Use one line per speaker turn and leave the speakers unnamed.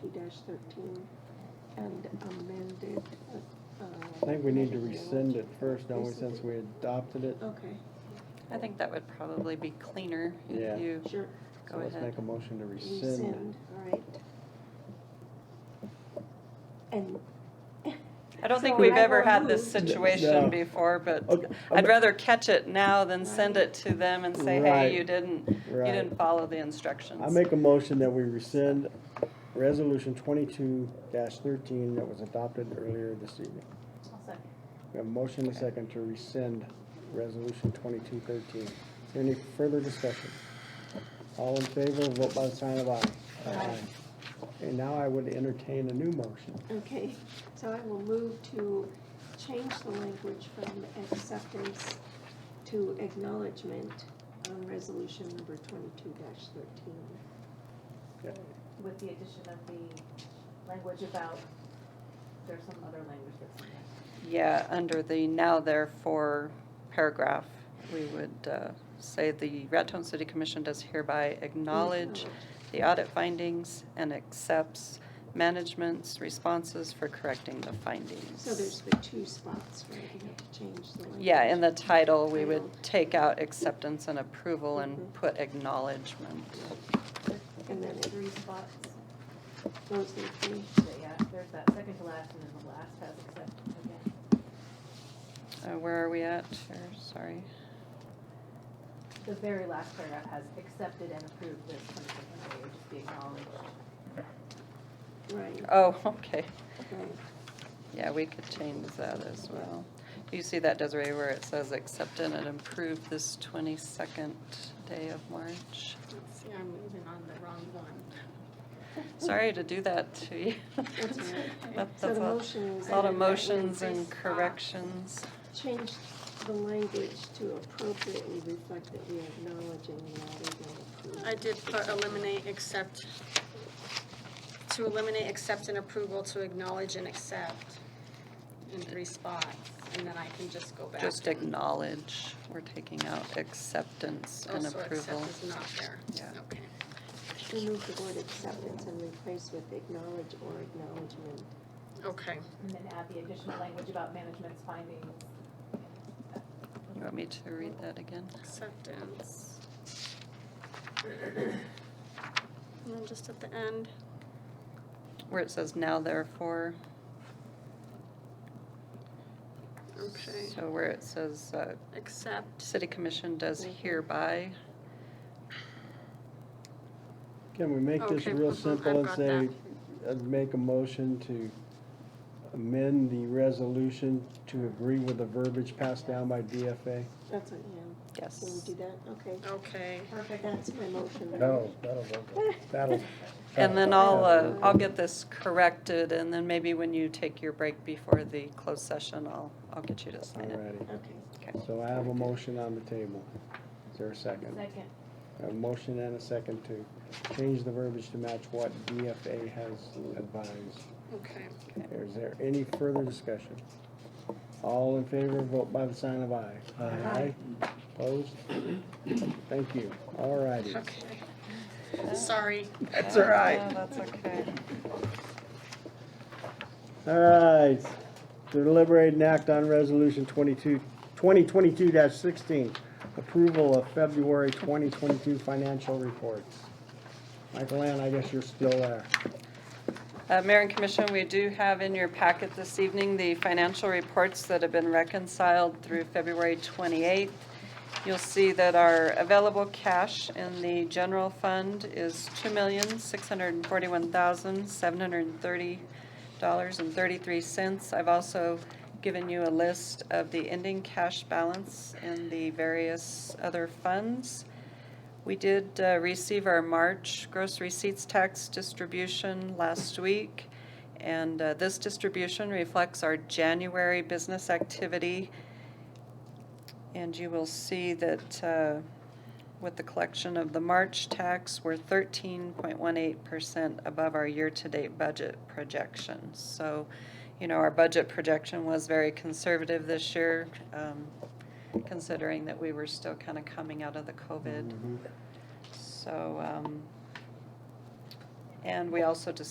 two thirteen and amended, uh.
I think we need to rescind it first, don't we, since we adopted it?
Okay,
I think that would probably be cleaner
Yeah.
if you
sure,
go
So let's
ahead.
make a motion to rescind.
rescind, all right. And.
I don't think
So
we've
I
ever
will
had this
move.
No.
situation before, but
Okay,
I'd
okay.
rather catch it now than send
Right.
it to them and say,
Right.
hey, you didn't, you
Right.
didn't follow the instructions.
I make a motion that we rescind resolution twenty-two thirteen that was adopted earlier this evening. We have a motion and a second to rescind resolution twenty-two thirteen. Is there any further discussion? All in favor, vote by the sign of aye.
Aye.
And now I would entertain a new motion.
Okay, so I will move to change the language from acceptance to acknowledgement on resolution number twenty-two thirteen.
with the addition of the language about, there's some other language that's in there.
Yeah, under the now therefore paragraph, we would uh, say the Raton City Commission does hereby acknowledge the audit findings and accepts management's responses for correcting the findings.
So there's the two spots where you have to change the language.
Yeah, in the title, we would
Title.
take out acceptance and approval
Mhm.
and put acknowledgement.
And then
There's
it-
three spots,
Those are the three.
but yeah, there's that second to last, and then the last has except, again.
Uh, Where are we at? Here, Sorry.
The very last paragraph has accepted and approved this, kind of thing, and it would just be acknowledged.
right,
Oh, okay.
right.
Yeah, we could change that as well. Do you see that, Desiree, where it says accepted and approved this twenty-second day of March?
Let's see, I'm moving on the wrong one.
Sorry to do that to you.
That's all right.
That-
So
That's
the
all,
motion is
a lot of
mo-
motions and
Increase, uh,
corrections.
change the language to appropriately reflect that we acknowledge and rather than approve.
I did put eliminate, accept, to eliminate, accept and approval, to acknowledge and accept in three spots, and then I can just go back.
Just
and-
acknowledge, we're taking out acceptance and
Also,
approval.
accept is not there.
Yeah.
Okay.
Remove the word acceptance and replace with acknowledge or acknowledgement.
Okay,
And then add the additional language about management's findings.
You want me to read that again?
acceptance. And then just at the end,
Where it says now therefore.
okay,
So where it says, uh,
accept,
city commission does hereby,
Can we make this
Okay,
real
mhm,
simple
I've got
and say, uh, make a motion to amend the resolution to agree with the verbiage passed down by DFA?
That's what, yeah,
yes.
can we do that? Okay,
okay,
Perfect.
that's my motion.
that'll work. That'll.
And then I'll, uh, I'll get this corrected, and then maybe when you take your break before the closed session, I'll, I'll get you to sign it.
Alrighty,
Okay.
so I have a motion on the table. Is there a second?
Second,
A motion and a second to change the verbiage to match what DFA has advised.
okay.
Is there any further discussion? All in favor, vote by the sign of aye. Aye. Opposed? Thank you. All righty.
Okay. Sorry.
That's all right.
Yeah, Oh, That's okay.
All right. Deliberate and act on resolution 22 2022-16, approval of February 2022 financial reports. Michael Ann, I guess you're still there.
Uh, Mayor and Commission, we do have in your packet this evening the financial reports that have been reconciled through February 28th. You'll see that our available cash in the general fund is $2,641,730.33. I've also given you a list of the ending cash balance in the various other funds. We did uh, receive our March gross receipts tax distribution last week, and uh, this distribution reflects our January business activity. And you will see that uh, with the collection of the March tax, we're 13.18% above our year-to-date budget projection. So, you know, our budget projection was very conservative this year, um, considering that we were still kind of coming out of the
Mm-hmm.
COVID.
Mhm.
So, um, and we also just